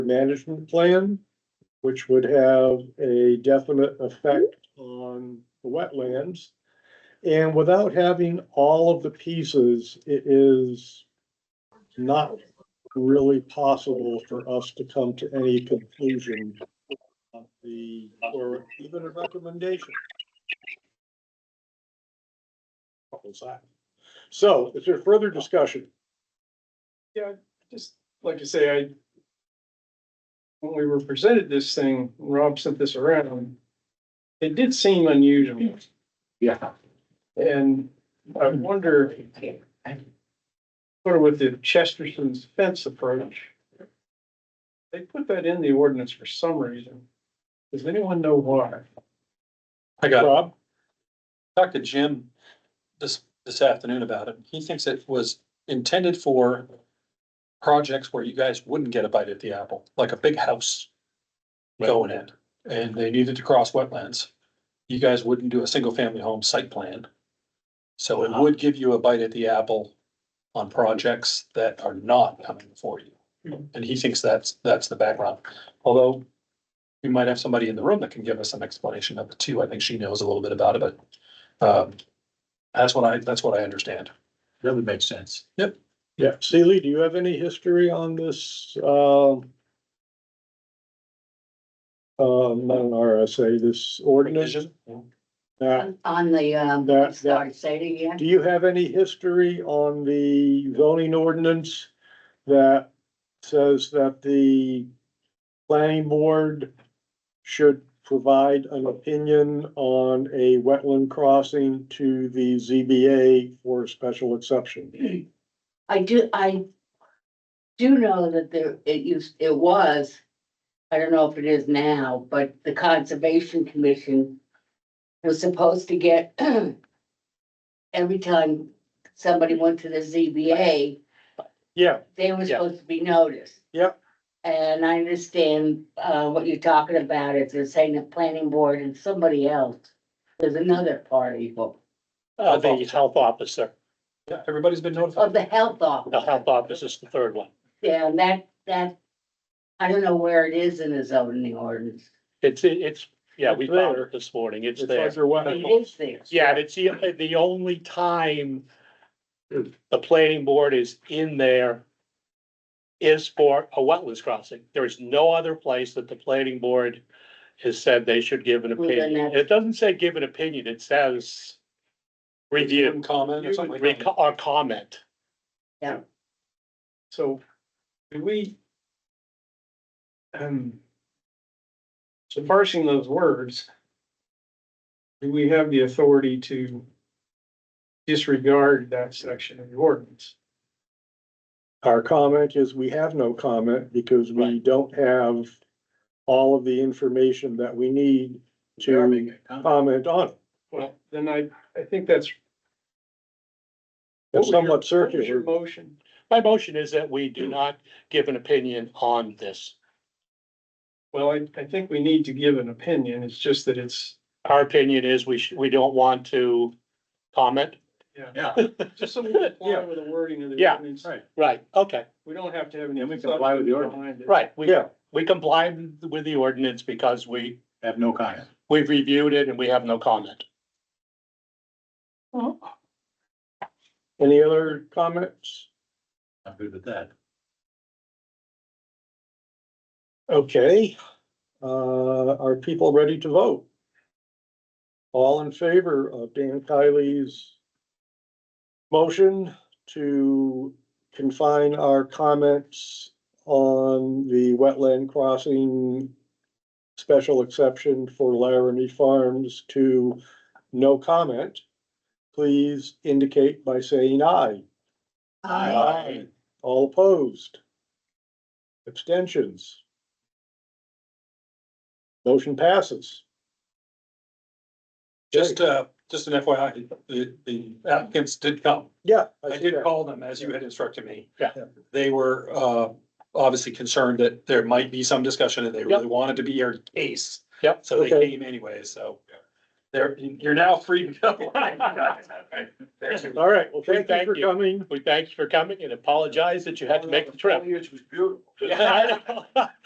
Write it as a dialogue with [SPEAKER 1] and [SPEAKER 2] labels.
[SPEAKER 1] management plan, which would have a definite effect on the wetlands. And without having all of the pieces, it is not really possible for us to come to any conclusion of the, or even a recommendation. What was that? So is there further discussion?
[SPEAKER 2] just like I say, I. When we were presented this thing, Rob sent this around. It did seem unusual
[SPEAKER 3] Yeah.
[SPEAKER 2] and I wonder. Sort of with the Chesterton's fence approach. They put that in the ordinance for some reason. Does anyone know why?
[SPEAKER 4] I got,
[SPEAKER 1] Rob?
[SPEAKER 4] talked to Jim this, this afternoon about it. He thinks it was intended for projects where you guys wouldn't get a bite at the apple, like a big house going in, and they needed to cross wetlands. You guys wouldn't do a single family home site plan. So it would give you a bite at the apple on projects that are not coming before you. And he thinks that's, that's the background, although we might have somebody in the room that can give us some explanation of it too. I think she knows a little bit about it, but um, that's what I, that's what I understand.
[SPEAKER 3] That would make sense.
[SPEAKER 1] Yeah. Seeley, do you have any history on this, uh? Uh, not an RSA, this ordinance? Uh,
[SPEAKER 5] On- On the,
[SPEAKER 1] That-
[SPEAKER 5] um,
[SPEAKER 1] that-
[SPEAKER 5] start, say it again.
[SPEAKER 1] Do you have any history on the zoning ordinance that says that the planning board should provide an opinion on a wetland crossing to the ZBA for a special exception?
[SPEAKER 5] I do, I do know that there, it used, it was, I don't know if it is now, but the Conservation Commission was supposed to get every time somebody went to the ZBA,
[SPEAKER 1] Yeah,
[SPEAKER 5] they were
[SPEAKER 1] Yeah.
[SPEAKER 5] supposed to be noticed.
[SPEAKER 1] Yep.
[SPEAKER 5] And I understand, uh, what you're talking about, if they're saying the planning board and somebody else, there's another party, well,
[SPEAKER 6] Uh, the health officer,
[SPEAKER 4] Yeah, everybody's been notified.
[SPEAKER 5] of the health officer.
[SPEAKER 6] the health officer's the third one.
[SPEAKER 5] Yeah, and that, that, I don't know where it is in the zoning ordinance.
[SPEAKER 6] It's, it's, yeah, we
[SPEAKER 1] It's there.
[SPEAKER 6] found it this morning, it's
[SPEAKER 1] it's
[SPEAKER 6] there.
[SPEAKER 1] under
[SPEAKER 5] It
[SPEAKER 1] wetland.
[SPEAKER 5] is there.
[SPEAKER 6] Yeah, and it's the, the only time the planning board is in there is for a wetlands crossing. There is no other place that the planning board has said they should give an
[SPEAKER 5] Well, then
[SPEAKER 6] opinion.
[SPEAKER 5] that's-
[SPEAKER 6] It doesn't say give an opinion, it says review,
[SPEAKER 4] Comment or something like that.
[SPEAKER 6] reco- or comment.
[SPEAKER 2] So, do we? Um. So parsing those words. Do we have the authority to? Disregard that section of the ordinance?
[SPEAKER 1] Our comment is we have no comment because we
[SPEAKER 6] Right.
[SPEAKER 1] don't have all of the information that we need to comment on. it.
[SPEAKER 2] Well, then I, I think that's.
[SPEAKER 1] It's
[SPEAKER 2] What was your-
[SPEAKER 1] somewhat
[SPEAKER 2] what was Your
[SPEAKER 1] circular.
[SPEAKER 2] motion,
[SPEAKER 6] My motion is that we do not give an opinion on this.
[SPEAKER 2] well, I, I think we need to give an opinion, it's just that it's,
[SPEAKER 6] Our opinion is we should, we don't want to comment.
[SPEAKER 3] Yeah.
[SPEAKER 2] just so we comply with the wording of the
[SPEAKER 6] Yeah.
[SPEAKER 2] ordinance.
[SPEAKER 3] Right.
[SPEAKER 6] Right, okay,
[SPEAKER 2] We don't have to have any.
[SPEAKER 3] Yeah, we comply with the ordinance.
[SPEAKER 2] behind it.
[SPEAKER 6] right. We,
[SPEAKER 1] Yeah.
[SPEAKER 6] we complied with the ordinance because we,
[SPEAKER 3] Have no comment.
[SPEAKER 6] we've reviewed it and we have no comment.
[SPEAKER 1] Any other comments?
[SPEAKER 3] I'm good with that.
[SPEAKER 1] Okay, uh, are people ready to vote? All in favor of Dan Kiley's motion to confine our comments on the wetland crossing special exception for Laramie Farms to no comment, please indicate by saying aye.
[SPEAKER 3] Aye.
[SPEAKER 1] All opposed? Abstentions? Motion passes.
[SPEAKER 4] Just, uh, just an FYI, the, the applicants did come.
[SPEAKER 1] Yeah.
[SPEAKER 4] I
[SPEAKER 1] see
[SPEAKER 4] did
[SPEAKER 1] that.
[SPEAKER 4] call them as you had instructed me.
[SPEAKER 6] Yeah.
[SPEAKER 4] They were, uh, obviously concerned that there might be some discussion and they really wanted to be your case.
[SPEAKER 6] Yep.
[SPEAKER 4] So they
[SPEAKER 1] Okay.
[SPEAKER 4] came anyway, so they're, you're now free to go.
[SPEAKER 1] All right, well, thank you
[SPEAKER 6] Thank
[SPEAKER 1] for
[SPEAKER 6] you.
[SPEAKER 1] coming.
[SPEAKER 6] We thank you for coming and apologize that you had to make the trip.
[SPEAKER 3] Which was beautiful.
[SPEAKER 6] Yeah, I know.